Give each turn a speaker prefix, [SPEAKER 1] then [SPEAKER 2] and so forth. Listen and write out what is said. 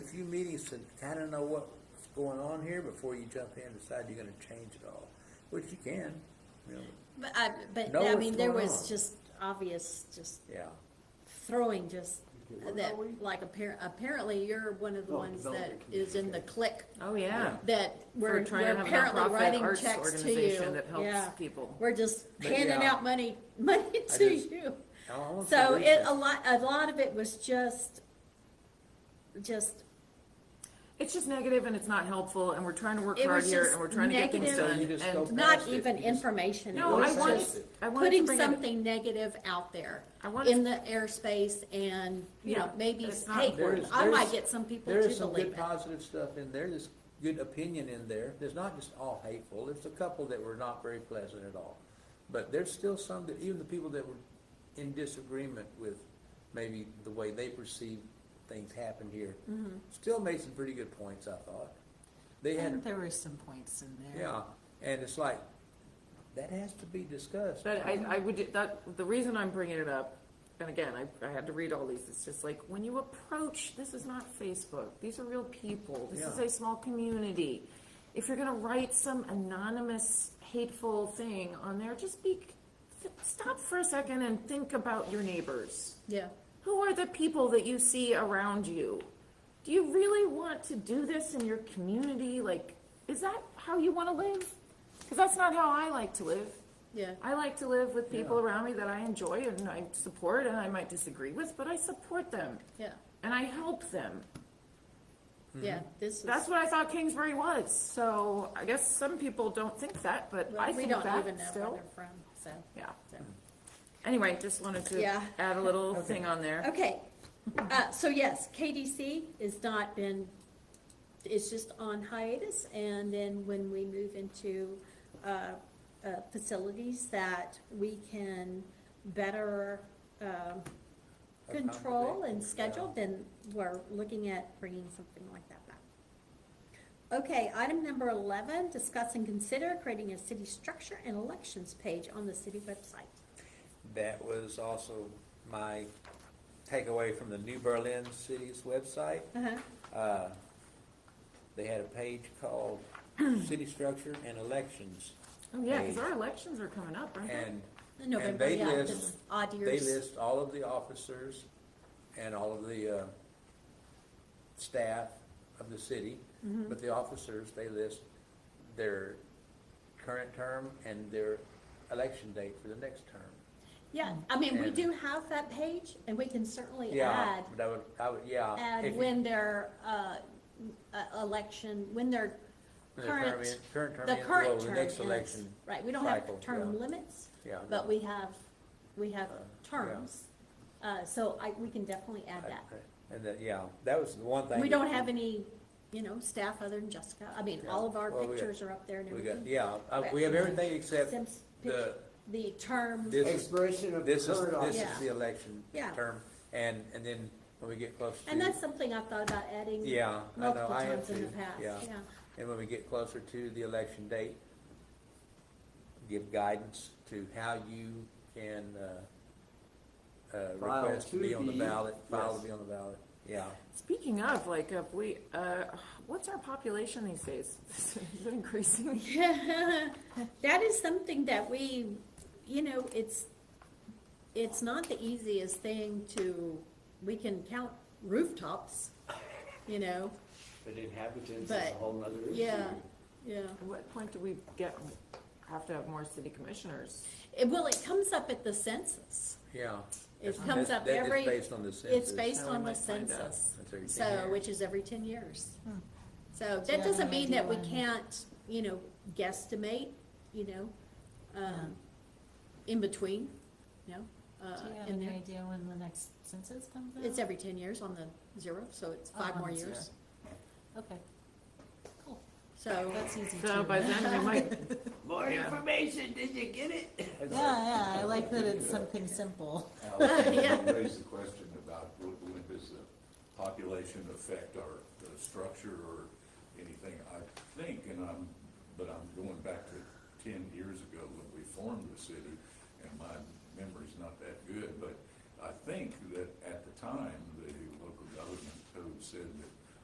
[SPEAKER 1] few meetings to kinda know what's going on here before you jump in and decide you're gonna change it all, which you can, you know,
[SPEAKER 2] But I, but
[SPEAKER 1] Know
[SPEAKER 2] I
[SPEAKER 1] what's
[SPEAKER 2] mean, there
[SPEAKER 1] going
[SPEAKER 2] was
[SPEAKER 1] on.
[SPEAKER 2] just obvious, just
[SPEAKER 1] yeah.
[SPEAKER 2] throwing just
[SPEAKER 3] Where
[SPEAKER 2] that,
[SPEAKER 3] are we?
[SPEAKER 2] like appar- apparently you're one of the
[SPEAKER 3] Oh,
[SPEAKER 2] ones that
[SPEAKER 3] development
[SPEAKER 2] is in the
[SPEAKER 3] community,
[SPEAKER 2] click
[SPEAKER 4] Oh, yeah.
[SPEAKER 2] that we're,
[SPEAKER 4] For trying
[SPEAKER 2] we're
[SPEAKER 4] to have a
[SPEAKER 2] apparently
[SPEAKER 4] nonprofit
[SPEAKER 2] writing
[SPEAKER 4] arts
[SPEAKER 2] checks to
[SPEAKER 4] organization
[SPEAKER 2] you.
[SPEAKER 4] That helps
[SPEAKER 2] Yeah,
[SPEAKER 4] people.
[SPEAKER 2] we're just
[SPEAKER 1] But
[SPEAKER 2] handing
[SPEAKER 1] yeah.
[SPEAKER 2] out money, money
[SPEAKER 1] I
[SPEAKER 2] to
[SPEAKER 1] just-
[SPEAKER 2] you.
[SPEAKER 1] I want to
[SPEAKER 2] So
[SPEAKER 1] read
[SPEAKER 2] it,
[SPEAKER 1] this.
[SPEAKER 2] a lot, a lot of it was just, just
[SPEAKER 4] It's just negative and it's not helpful and we're trying to work
[SPEAKER 2] It
[SPEAKER 4] hard
[SPEAKER 2] was
[SPEAKER 4] here
[SPEAKER 2] just
[SPEAKER 4] and we're trying to get things
[SPEAKER 2] negative.
[SPEAKER 4] done.
[SPEAKER 1] So you just
[SPEAKER 4] and-
[SPEAKER 1] go-
[SPEAKER 2] not
[SPEAKER 1] past it,
[SPEAKER 2] even
[SPEAKER 1] you just-
[SPEAKER 2] information.
[SPEAKER 4] No,
[SPEAKER 2] it
[SPEAKER 4] I
[SPEAKER 2] was
[SPEAKER 4] wanted,
[SPEAKER 2] just
[SPEAKER 4] I wanted to
[SPEAKER 2] putting
[SPEAKER 4] bring it.
[SPEAKER 2] something negative out there
[SPEAKER 4] I wanted
[SPEAKER 2] in the airspace and, you know,
[SPEAKER 4] Yeah,
[SPEAKER 2] maybe,
[SPEAKER 4] it's not
[SPEAKER 2] hey,
[SPEAKER 4] important.
[SPEAKER 2] I
[SPEAKER 1] There's-
[SPEAKER 2] might get some people
[SPEAKER 1] There
[SPEAKER 2] to
[SPEAKER 1] is some
[SPEAKER 2] believe
[SPEAKER 1] good
[SPEAKER 2] it.
[SPEAKER 1] positive stuff in there, there's good opinion in there, there's not just all hateful, there's a couple that were not very pleasant at all. But there's still some that, even the people that were in disagreement with maybe the way they perceived things happened here,
[SPEAKER 2] Mm-hmm.
[SPEAKER 1] still made some pretty good points, I thought. They had,
[SPEAKER 5] There were some points in there.
[SPEAKER 1] yeah, and it's like, that has to be discussed.
[SPEAKER 4] But I, I would, that, the reason I'm bringing it up, and again, I, I had to read all these, it's just like, when you approach, this is not Facebook, these are real people, this is
[SPEAKER 1] Yeah.
[SPEAKER 4] a small community. If you're gonna write some anonymous hateful thing on there, just be, stop for a second and think about your neighbors.
[SPEAKER 2] Yeah,
[SPEAKER 4] Who are the people that you see around you? Do you really want to do this in your community? Like, is that how you want to live? Because that's not how I like to live.
[SPEAKER 2] yeah.
[SPEAKER 4] I like to live with people
[SPEAKER 1] Yeah.
[SPEAKER 4] around me that I enjoy and I support and I might disagree with, but I support them
[SPEAKER 2] Yeah,
[SPEAKER 4] and I help them.
[SPEAKER 2] yeah,
[SPEAKER 1] Mm-hmm.
[SPEAKER 2] this is,
[SPEAKER 4] That's what I thought Kingsbury was. So I guess some people don't think that, but I
[SPEAKER 2] well, we
[SPEAKER 4] think
[SPEAKER 2] don't even
[SPEAKER 4] that
[SPEAKER 2] know where
[SPEAKER 4] still.
[SPEAKER 2] they're from, so,
[SPEAKER 4] Yeah.
[SPEAKER 2] so.
[SPEAKER 4] Anyway, just wanted to
[SPEAKER 2] Yeah.
[SPEAKER 4] add a little thing on there.
[SPEAKER 2] Okay, uh, so yes, KDC has not been, it's just on hiatus, and then when we move into, uh, uh, facilities that we can better, um, control and
[SPEAKER 1] Accommodate,
[SPEAKER 2] schedule, then we're looking at bringing something like that back. Okay, item number eleven, discuss and consider creating a city structure and elections page on the city website.
[SPEAKER 1] That was also my takeaway from the New Berlin City's website.
[SPEAKER 2] Uh-huh,
[SPEAKER 1] Uh, They had a page called City Structure and Elections,
[SPEAKER 4] Oh, yeah, because
[SPEAKER 1] Hey.
[SPEAKER 4] our elections are coming up, aren't they?
[SPEAKER 1] and
[SPEAKER 2] Uh-huh. November,
[SPEAKER 1] they
[SPEAKER 2] yeah,
[SPEAKER 1] list-
[SPEAKER 2] just odd
[SPEAKER 1] they
[SPEAKER 2] years.
[SPEAKER 1] list all of the officers and all of the uh, staff of the city,
[SPEAKER 2] Mm-hmm.
[SPEAKER 1] but the officers, they list their current term and their election date for the next term.
[SPEAKER 2] Yeah, I mean, we
[SPEAKER 1] Oh, And-
[SPEAKER 2] do have that page, and we can certainly
[SPEAKER 1] Yeah,
[SPEAKER 2] add,
[SPEAKER 1] but I would, I would, yeah. if
[SPEAKER 2] add
[SPEAKER 1] you-
[SPEAKER 2] when their, uh, uh, election, when their
[SPEAKER 1] when their term
[SPEAKER 2] current,
[SPEAKER 1] in- Current term
[SPEAKER 2] the
[SPEAKER 1] ends, well,
[SPEAKER 2] current
[SPEAKER 1] the
[SPEAKER 2] term
[SPEAKER 1] next
[SPEAKER 2] ends.
[SPEAKER 1] election,
[SPEAKER 2] Right, we don't have
[SPEAKER 1] cycle,
[SPEAKER 2] term
[SPEAKER 1] yeah.
[SPEAKER 2] limits,
[SPEAKER 1] yeah. no.
[SPEAKER 2] but we have, we have
[SPEAKER 1] Uh,
[SPEAKER 2] terms. Uh, so I, we can definitely add that.
[SPEAKER 1] And that, yeah, that was the one thing.
[SPEAKER 2] We
[SPEAKER 1] that
[SPEAKER 2] don't have any, you know, staff other than Jessica. I mean, all of our
[SPEAKER 1] Yeah, well, we got-
[SPEAKER 2] pictures are up there and
[SPEAKER 1] We got,
[SPEAKER 2] everything.
[SPEAKER 1] yeah, uh, we have everything except
[SPEAKER 2] Sim's
[SPEAKER 1] the,
[SPEAKER 2] picture, the term,
[SPEAKER 1] this is,
[SPEAKER 3] Expiration of
[SPEAKER 1] this is,
[SPEAKER 3] current
[SPEAKER 1] this
[SPEAKER 3] office.
[SPEAKER 1] is the election
[SPEAKER 2] Yeah.
[SPEAKER 1] term, and, and then when we get closer to.
[SPEAKER 2] and that's something I've thought about adding
[SPEAKER 1] Yeah, I know,
[SPEAKER 2] multiple
[SPEAKER 1] I have
[SPEAKER 2] times in the
[SPEAKER 1] to,
[SPEAKER 2] past,
[SPEAKER 1] yeah.
[SPEAKER 2] yeah.
[SPEAKER 1] And when we get closer to the election date, give guidance to how you can, uh, uh,
[SPEAKER 3] File
[SPEAKER 1] request to
[SPEAKER 3] to
[SPEAKER 1] be on the
[SPEAKER 3] be-
[SPEAKER 1] ballot, file
[SPEAKER 3] yes.
[SPEAKER 1] to be on the ballot, yeah.
[SPEAKER 4] Speaking of, like, if we, uh, what's our population these days? Is it increasing?
[SPEAKER 2] That is something that we, you know, it's, it's not the easiest thing to, we can count rooftops, you know,
[SPEAKER 3] But inhabitants is a
[SPEAKER 2] But,
[SPEAKER 3] whole nother issue.
[SPEAKER 2] yeah, yeah.
[SPEAKER 4] At what point do we get, have to have more city commissioners?
[SPEAKER 2] It, well, it comes up at the census.
[SPEAKER 1] Yeah.
[SPEAKER 2] It
[SPEAKER 1] That's-
[SPEAKER 2] comes
[SPEAKER 1] that's-
[SPEAKER 2] up
[SPEAKER 1] that is
[SPEAKER 2] every-
[SPEAKER 1] based on the
[SPEAKER 2] It's
[SPEAKER 1] census.
[SPEAKER 2] based
[SPEAKER 4] how we
[SPEAKER 2] on the
[SPEAKER 4] might find out.
[SPEAKER 2] census,
[SPEAKER 1] That's every 10
[SPEAKER 2] so,
[SPEAKER 1] years.
[SPEAKER 2] which is every ten years. So
[SPEAKER 5] Do you
[SPEAKER 2] that
[SPEAKER 5] have
[SPEAKER 2] doesn't
[SPEAKER 5] any
[SPEAKER 2] mean that we
[SPEAKER 5] idea when-
[SPEAKER 2] can't, you know, guesstimate, you know, um, in between, you know, uh,
[SPEAKER 5] Do you have
[SPEAKER 2] in
[SPEAKER 5] any
[SPEAKER 2] there.
[SPEAKER 5] idea when the next census comes out?
[SPEAKER 2] It's every ten years on the zero, so it's
[SPEAKER 5] Oh,
[SPEAKER 2] five
[SPEAKER 5] on
[SPEAKER 2] more
[SPEAKER 5] the zero.
[SPEAKER 2] years.
[SPEAKER 5] Okay, cool.
[SPEAKER 2] So,
[SPEAKER 5] That's easy to.
[SPEAKER 4] So by then, we might,
[SPEAKER 3] More information, did you get it?
[SPEAKER 5] Yeah, yeah, I like that it's something simple.
[SPEAKER 6] Allison,
[SPEAKER 2] Yeah.
[SPEAKER 6] you raised the question about what, when does the population affect our, the structure or anything? I think, and I'm, but I'm going back to ten years ago when we formed the city, and my memory's not that good, but I think that at the time, the local government code said that